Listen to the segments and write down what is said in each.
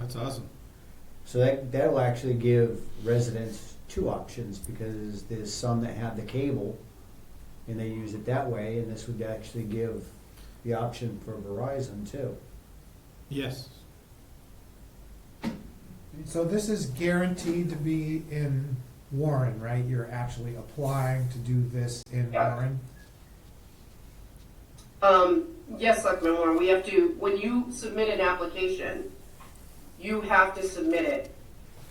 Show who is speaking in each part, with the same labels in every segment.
Speaker 1: That's awesome.
Speaker 2: So that, that'll actually give residents two options, because there's some that have the cable and they use it that way, and this would actually give the option for Verizon too.
Speaker 1: Yes.
Speaker 3: So this is guaranteed to be in Warren, right? You're actually applying to do this in
Speaker 4: Yeah.
Speaker 3: Warren?
Speaker 4: Um, yes, Selectman Warren, we have to, when you submit an application, you have to submit it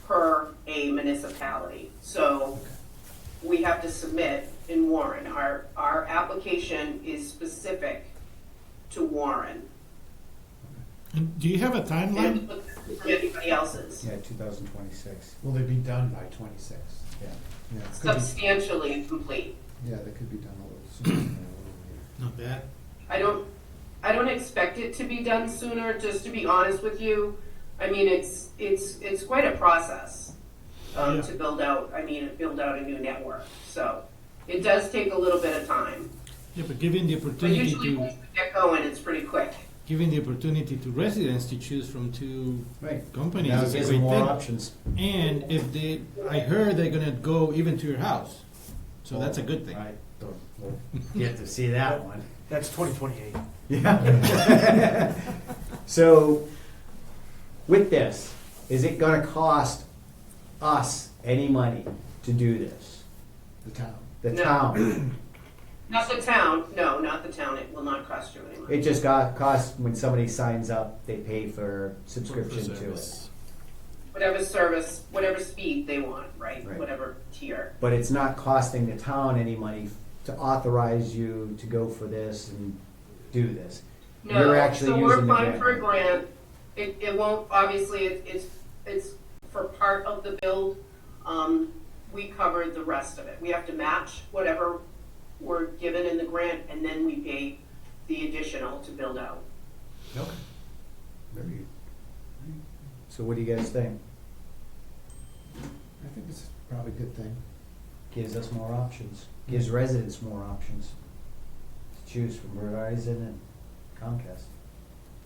Speaker 4: per a municipality. So we have to submit in Warren. Our, our application is specific to Warren.
Speaker 1: And do you have a timeline?
Speaker 4: And for anybody else's,
Speaker 2: Yeah, two thousand twenty-six,
Speaker 3: Will they be done by twenty-six?
Speaker 2: yeah.
Speaker 3: Yeah, it could be,
Speaker 4: substantially complete.
Speaker 3: yeah, they could be done a little sooner. than a little
Speaker 1: Not
Speaker 3: later.
Speaker 1: bad.
Speaker 4: I don't, I don't expect it to be done sooner, just to be honest with you. I mean, it's, it's, it's quite a process, um,
Speaker 1: Yeah.
Speaker 4: to build out, I mean, build out a new network, so. It does take a little bit of time,
Speaker 1: Yeah, but given the
Speaker 4: but
Speaker 1: opportunity
Speaker 4: usually
Speaker 1: to
Speaker 4: once we get going, it's pretty quick.
Speaker 1: given the opportunity to residents to choose from two
Speaker 2: Right.
Speaker 1: companies,
Speaker 2: Now it
Speaker 1: it's a
Speaker 2: gives
Speaker 1: great
Speaker 2: them more
Speaker 1: thing.
Speaker 2: options.
Speaker 1: And if they, I heard they're gonna go even to your house, so that's a good thing.
Speaker 2: I don't, we'll get to see that one.
Speaker 5: That's 2028.
Speaker 2: Yeah. So, with this, is it gonna cost us any money to do this?
Speaker 3: The town.
Speaker 2: The
Speaker 4: No.
Speaker 2: town?
Speaker 4: Not the town, no, not the town, it will not cost you any money.
Speaker 2: It just got, costs, when somebody signs up, they pay for subscription to it.
Speaker 1: service.
Speaker 4: Whatever service, whatever speed they want, right,
Speaker 2: Right.
Speaker 4: whatever tier.
Speaker 2: But it's not costing the town any money to authorize you to go for this and do this. You're
Speaker 4: No,
Speaker 2: actually
Speaker 4: so we're
Speaker 2: using the
Speaker 4: applying for a
Speaker 2: grant.
Speaker 4: grant. It, it won't, obviously, it- it's, it's for part of the build. Um, we covered the rest of it. We have to match whatever we're given in the grant, and then we pay the additional to build out.
Speaker 2: Okay. Very good. So what do you guys think?
Speaker 3: I think it's probably a good thing.
Speaker 2: Gives us more options, gives residents more options to choose from Verizon and Comcast.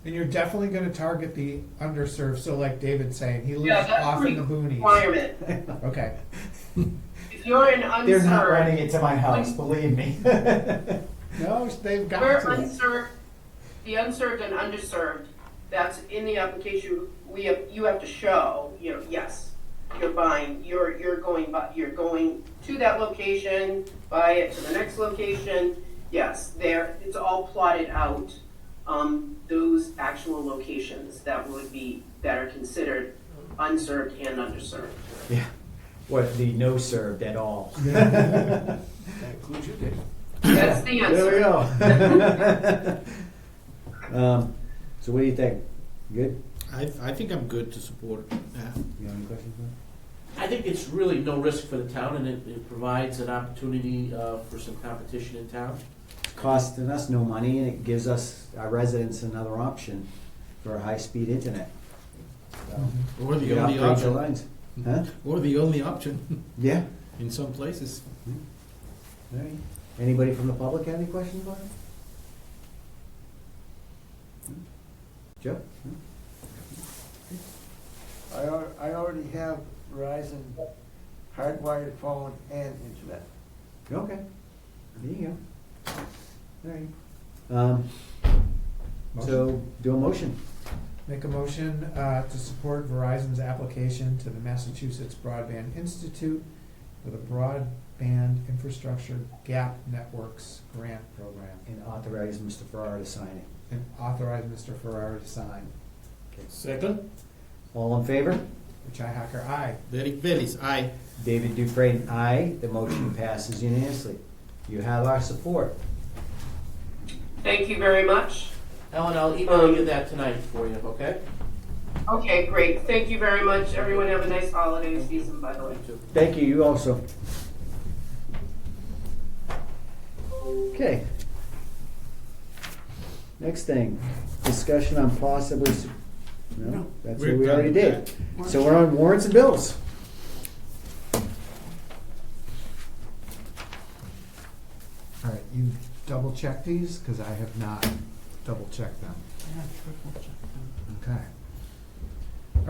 Speaker 3: And you're definitely gonna target the underserved, so like David's saying, he
Speaker 4: Yeah,
Speaker 3: lives
Speaker 4: that's
Speaker 3: off in the boonies.
Speaker 4: Requirement.
Speaker 3: Okay,
Speaker 4: If you're an
Speaker 2: They're not running
Speaker 4: unserved,
Speaker 2: it to my house, believe me.
Speaker 3: no, they've got
Speaker 4: we're
Speaker 3: to.
Speaker 4: unserved, the unserved and underserved, that's in the application, we have, you have to show, you know, yes, you're buying, you're, you're going, bu- you're going to that location, buy it to the next location, yes, there, it's all plotted out, um, those actual locations that would be, that are considered unserved and underserved.
Speaker 2: Yeah, what, the no served at all.
Speaker 5: That includes you, Dave.
Speaker 4: That's the answer.
Speaker 2: There we go. Um, So what do you think? Good?
Speaker 1: I, I think I'm good to support. Yeah.
Speaker 2: You have any questions? Mike?
Speaker 6: I think it's really no risk for the town, and it, it provides an opportunity uh, for some competition in town.
Speaker 2: It's Costing us no money and it gives us, our residents, another option for high-speed internet. So,
Speaker 1: Or
Speaker 2: You
Speaker 1: the
Speaker 2: can
Speaker 1: only
Speaker 2: upgrade your
Speaker 1: option. Mm-hmm.
Speaker 2: lines. Huh?
Speaker 1: Or the only option
Speaker 2: Yeah.
Speaker 1: in some places.
Speaker 2: All right. Anybody from the public have any questions about it? Joe? Hmm?
Speaker 5: I, al- I already have Verizon hardwired phone and internet.
Speaker 2: Okay. There you go. All right. Um, So, do a motion.
Speaker 3: Make a motion uh, to support Verizon's application to the Massachusetts Broadband Institute for the Broadband Infrastructure Gap Networks Grant Program
Speaker 2: And authorize Mr. Farrar to sign it.
Speaker 3: and authorize Mr. Ferrara to sign.
Speaker 1: Second.
Speaker 2: All in favor?
Speaker 3: Richi Hacker, aye.
Speaker 1: Derek Bellis, aye.
Speaker 2: David Dufresne, aye. The motion passes unanimously. You have our support.
Speaker 4: Thank you very much.
Speaker 6: Ellen, I'll email you that tonight for you, okay?
Speaker 4: Okay, great. Thank you very much. Everyone have a nice holiday season, by the way.
Speaker 2: Thank you, you also. Okay. Next thing, discussion on possibly, s- no, that's what
Speaker 1: We're
Speaker 2: we
Speaker 1: done
Speaker 2: already
Speaker 1: with
Speaker 2: did. So we're on warrants and bills.
Speaker 3: All right, you double check these, because I have not double checked them. Okay.